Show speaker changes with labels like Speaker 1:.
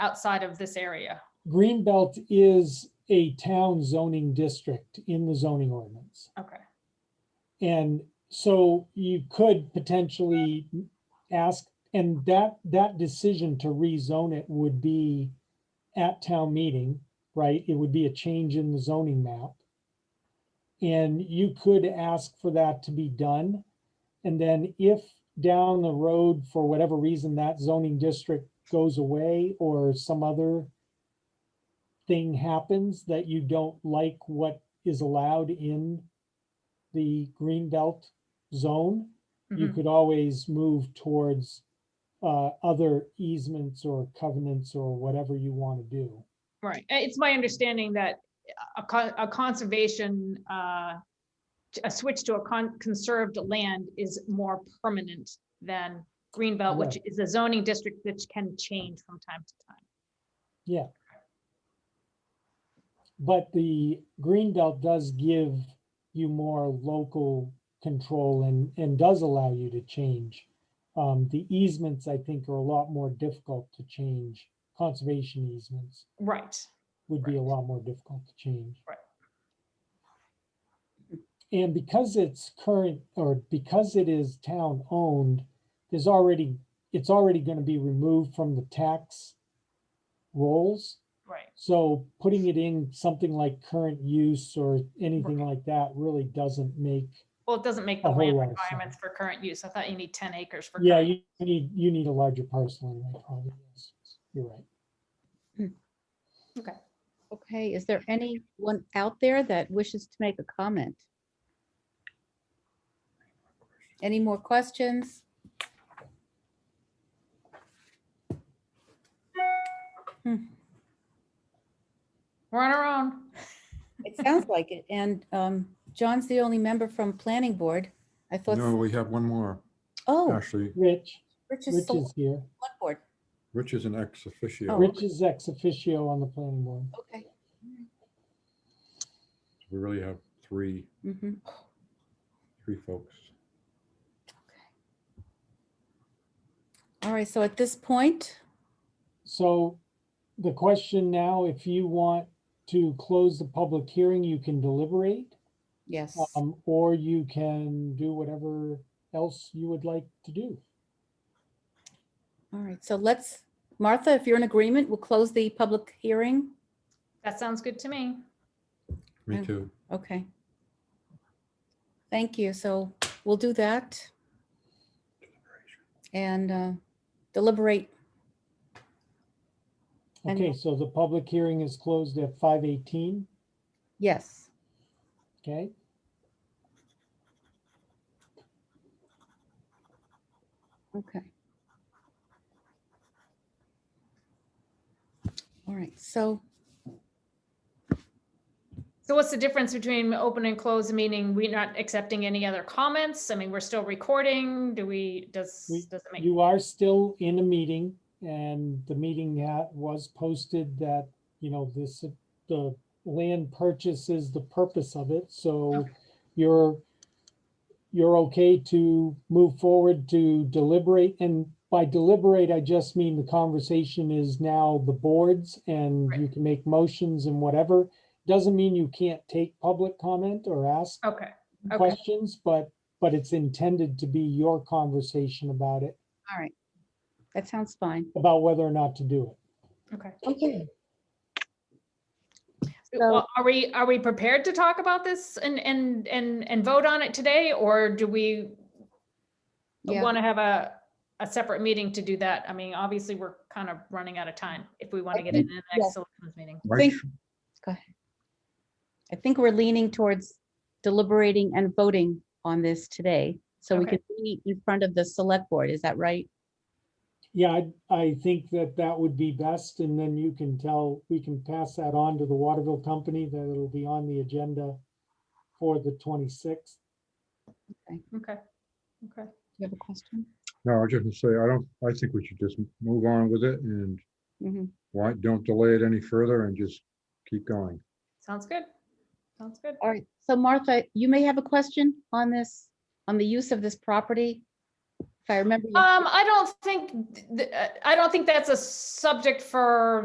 Speaker 1: outside of this area.
Speaker 2: Greenbelt is a town zoning district in the zoning ordinance.
Speaker 1: Okay,
Speaker 2: And so you could potentially ask, and that, that decision to rezone it would be at town meeting, right? It would be a change in the zoning map. And you could ask for that to be done. And then if down the road, for whatever reason, that zoning district goes away or some other thing happens that you don't like what is allowed in the green belt zone, you
Speaker 1: mhm,
Speaker 2: could always move towards uh, other easements or covenants or whatever you want to do.
Speaker 1: right. Uh, It's my understanding that a con- a conservation, uh, a switch to a con- conserved land is more permanent than Greenbelt, which is a zoning district which can change from time to time.
Speaker 2: But the green belt does give you more local control and, and does allow you to change. Um, The easements, I think, are a lot more difficult to change. Conservation easements
Speaker 1: Right,
Speaker 2: would be a
Speaker 1: Right.
Speaker 2: lot more difficult to change.
Speaker 1: Right.
Speaker 2: And because it's current, or because it is town-owned, there's already, it's already gonna be removed from the tax rolls.
Speaker 1: right.
Speaker 2: So putting it in something like current use or anything like that really doesn't make,
Speaker 1: Well, it doesn't make the
Speaker 2: A whole
Speaker 1: land
Speaker 2: lot of sense.
Speaker 1: requirements for current use. I thought you need ten acres for.
Speaker 2: yeah,
Speaker 1: current-
Speaker 2: you need, you need a larger parcel anyway, probably. yes, You're right.
Speaker 3: Okay, is there anyone out there that wishes to make a comment? Any more questions?
Speaker 1: We're on our own.
Speaker 3: It sounds like it. And um, John's the only member from planning board. I thought,
Speaker 4: No, we have one more,
Speaker 3: oh,
Speaker 4: actually.
Speaker 2: Rich,
Speaker 3: Rich is
Speaker 2: Rich
Speaker 3: the
Speaker 2: is here.
Speaker 3: select board.
Speaker 4: Rich is an ex
Speaker 3: Oh.
Speaker 4: officio.
Speaker 2: Rich is ex officio on the planning board.
Speaker 3: Okay.
Speaker 4: We really have three,
Speaker 3: mhm.
Speaker 4: three folks.
Speaker 3: All right, so at this point,
Speaker 2: So the question now, if you want to close the public hearing, you can deliberate,
Speaker 3: yes,
Speaker 2: um, or you can do whatever else you would like to do.
Speaker 3: all right, so let's, Martha, if you're in agreement, we'll close the public hearing.
Speaker 1: That sounds good to me.
Speaker 4: Me
Speaker 3: Mm.
Speaker 4: too.
Speaker 3: Okay. Thank you. So we'll do that. And uh, deliberate. And-
Speaker 2: Okay, so the public hearing is closed at five eighteen,
Speaker 3: Yes.
Speaker 2: okay?
Speaker 3: Okay. All right. So
Speaker 1: So what's the difference between open and close, meaning we're not accepting any other comments? I mean, we're still recording. Do we, does,
Speaker 2: We-
Speaker 1: does it make,
Speaker 2: You are still in a meeting and the meeting ha- was posted that, you know, this, the land purchase is the purpose of it, so
Speaker 1: Okay.
Speaker 2: you're, you're okay to move forward to deliberate, and by deliberate, I just mean the conversation is now the boards and
Speaker 1: Right.
Speaker 2: you can make motions and whatever. Doesn't mean you can't take public comment or ask
Speaker 1: okay, Okay.
Speaker 2: questions, but, but it's intended to be your conversation about it,
Speaker 3: that sounds fine.
Speaker 2: about whether or not to do
Speaker 1: okay.
Speaker 3: Okay.
Speaker 1: Well, Are we, are we prepared to talk about this and, and, and, and vote on it today? Or do we
Speaker 3: Yeah.
Speaker 1: want to have a, a separate meeting to do that? I mean, obviously, we're kind of running out of time if we want to
Speaker 3: I
Speaker 1: get in
Speaker 3: think-
Speaker 1: the
Speaker 3: yeah.
Speaker 1: next selectmen's meeting.
Speaker 3: I think- Go ahead. I think we're leaning towards deliberating and voting on this today. So we
Speaker 1: Okay.
Speaker 3: can meet in front of the select board. Is that right?
Speaker 2: it. Yeah, I, I think that that would be best, and then you can tell, we can pass that on to the Waterville Company, that it'll be on the agenda for the twenty-sixth.
Speaker 1: Okay, okay.
Speaker 3: You have a question?
Speaker 4: No, I was just gonna say, I don't, I think we should just move on with it and
Speaker 3: Mhm.
Speaker 4: why, don't delay it any further and just keep going.
Speaker 1: Sounds good. Sounds good.
Speaker 3: All right. So Martha, you may have a question on this, on the use of this property? If I remember. you-
Speaker 1: uh, Um, I don't think, th- th- I don't think that's a subject for